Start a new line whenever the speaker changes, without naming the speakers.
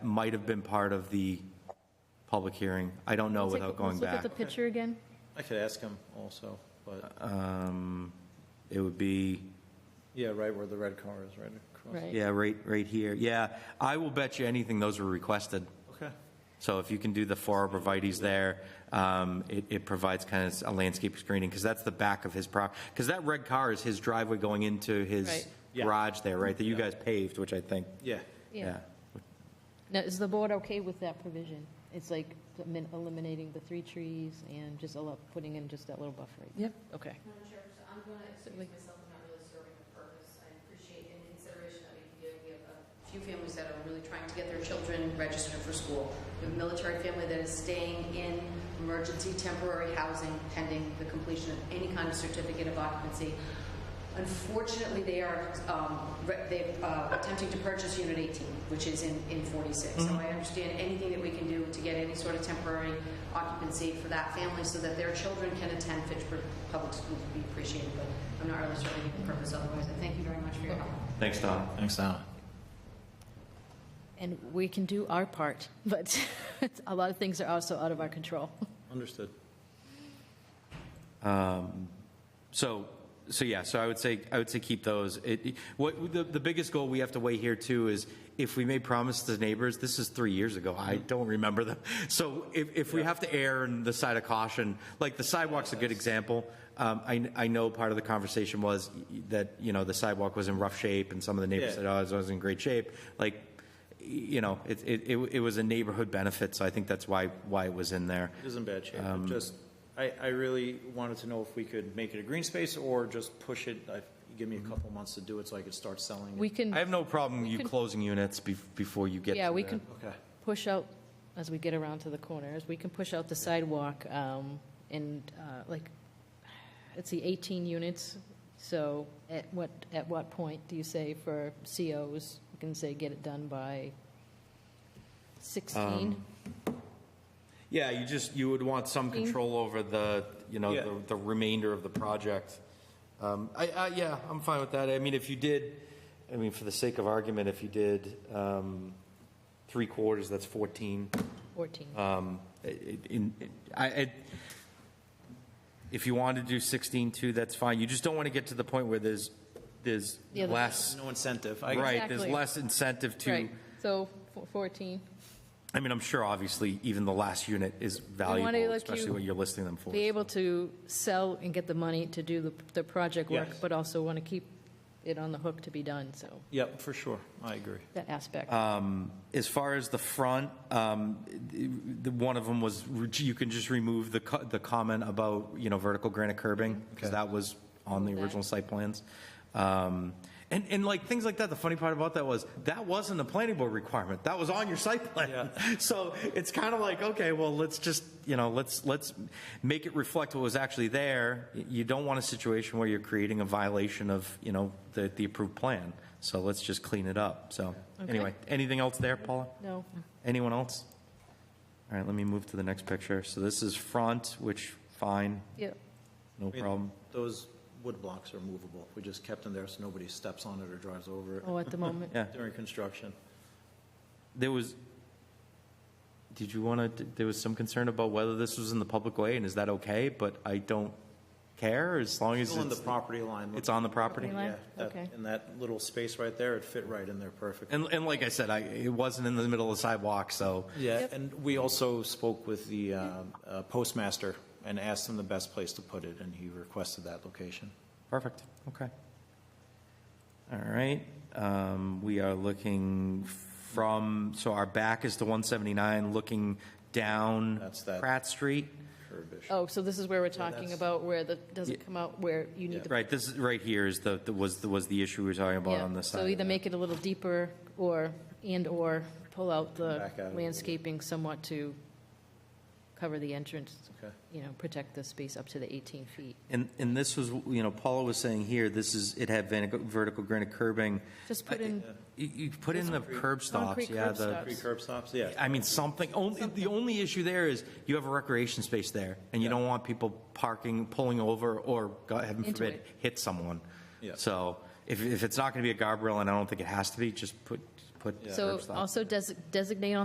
might have been part of the public hearing. I don't know
Let's take-
Oh, without going
Let's
back.
look at the picture again.
I could ask him also, but,
Um, It would be,
yeah, right where the red car is, right across.
Right.
yeah, right, right here. Yeah, I will bet you anything those were requested.
Okay.
So if you can do the four arborvitae's there, um, it, it provides kind of a landscape screening, because that's the back of his prop, because that red car is his driveway going into his
Right.
Yeah.
garage there, right, that you
Yeah.
guys paved, which I think,
Yeah,
yeah.
Now, is the board okay with that provision? It's like elimin- eliminating the three trees and just a lot, putting in just that little buffer. Yep. Okay.
Madam Chair, so I'm going to excuse
Certainly.
myself, I'm not really serving the purpose. I appreciate in consideration that we can give, we have a few families that are really trying to get their children registered for school. We have a military family that is staying in emergency temporary housing pending the completion of any kind of certificate of occupancy. Unfortunately, they are, um, re- they're uh, attempting to purchase Unit 18, which is in, in 46. So I understand anything that we can do to get any sort of temporary occupancy for that family so that their children can attend Fitchburg Public Schools would be appreciated, but I'm not really serving any purpose otherwise. I thank you very much for your help.
Thanks, Tom.
thanks, Alan.
And we can do our part, but a lot of things are also out of our control.
Understood.
So, so yeah, so I would say, I would say keep those. It, what, the, the biggest goal we have to weigh here too is if we made promise to neighbors, this is three years ago, I
Mm-hmm.
don't remember them. So if, if we have to err on the side of caution, like the sidewalk's a good example. Um, I, I know part of the conversation was that, you know, the sidewalk was in rough shape and some of the neighbors
Yeah.
said, oh, it was in great shape. Like, you know, it, it, it it was a neighborhood benefit, so I think that's why, why it was in there.
It is in bad shape.
Um,
It Just, I, I really wanted to know if we could make it a green space or just push it. I- Give
Mm-hmm.
me a couple months to do it so I could start selling it.
We can.
I have no problem you
could-
closing units bef- before you get to
Mm-hmm. Yeah, we
the-
can
Okay.
push out, as we get around to the corners, we can push out the sidewalk um, and uh, like, let's see, 18 units. So at what, at what point do you say for COs, you can say get it done by 16?
Yeah, you just, you would want some control over the, you know,
Yeah.
the, the remainder of the project. Um, I, I, yeah, I'm fine with that. I mean, if you did, I mean, for the sake of argument, if you did, um, three quarters, that's fourteen.
14.
Um, it- in, I, I, if you want to do sixteen two, that's fine. You just don't want to get to the point where there's, there's
Yeah, the-
less,
No incentive. I-
right, there's
Exactly.
less incentive to.
Right, so fo- 14.
I mean, I'm sure obviously even the last unit is valuable,
let
especially
you
what you're listing them for.
Be able to sell and get the money to do the, the project work,
Yes.
but also want to keep it on the hook to be done, so
Yep, for sure. I agree.
that aspect.
As far as the front, um, the, one of them was, you can just remove the, co- the comment about, you know, vertical granite curbing, because
Okay.
that was on the
Okay.
original site plans. Um, and, and like, things like that, the funny part about that was, that wasn't a planning board requirement, that was on your site plan. So it's kind of like, okay, well, let's just, you know, let's, let's make it reflect what was actually there. Y- You don't want a situation where you're creating a violation of, you know, the, the approved plan, so let's just clean it up, so. Anyway, anything else there, Paula?
No,
Anyone else? All right, let me move to the next picture. So this is front, which, fine,
yeah,
no
I mean,
problem.
Those wood blocks are movable. We just kept them there so nobody steps on it or drives over it
oh, at the moment.
Yeah,
during construction.
there was, did you want to, there was some concern about whether this was in the public way, and is that okay? But I don't care, as long as
Still in the
it's,
property line.
it's on the property.
Property line?
Yeah, that-
Okay.
in that little space right there, it fit right in there perfectly.
And, and like I said, I, it wasn't in the middle of the sidewalk, so,
Yeah, and we also spoke with the um, uh, postmaster and asked him the best place to put it, and he requested that location.
perfect, okay. All right, um, we are looking from, so our back is to 179, looking down
That's that.
Pratt Street.
Curvish.
Oh, so this is where we're talking
that's-
about where the, doesn't come out where you need
Yeah.
the.
Right, this is, right here is the, the- was, was the issue we were talking about
Yeah.
on this side.
So either
of
make it a little deeper or, and/or pull out the
Back out a little bit.
landscaping somewhat to cover the entrance,
Okay.
you know, protect the space up to the 18 feet.
that. And, and this was, you know, Paula was saying here, this is, it had vertical- vertical granite curbing.
Just put in,
You, you put in the curb stops,
Concrete
yeah,
curb
the,
stops.
Three curb stops, yeah.
I mean, something, only, the only issue there is you have a recreation space there, and you don't want people parking, pulling over, or, God heaven
Into
forbid,
it.
hit someone.
Yeah.
So if, if it's not gonna be a guardrail, and I don't think it has to be, just put, put curb
so
stops.
also desi- designate on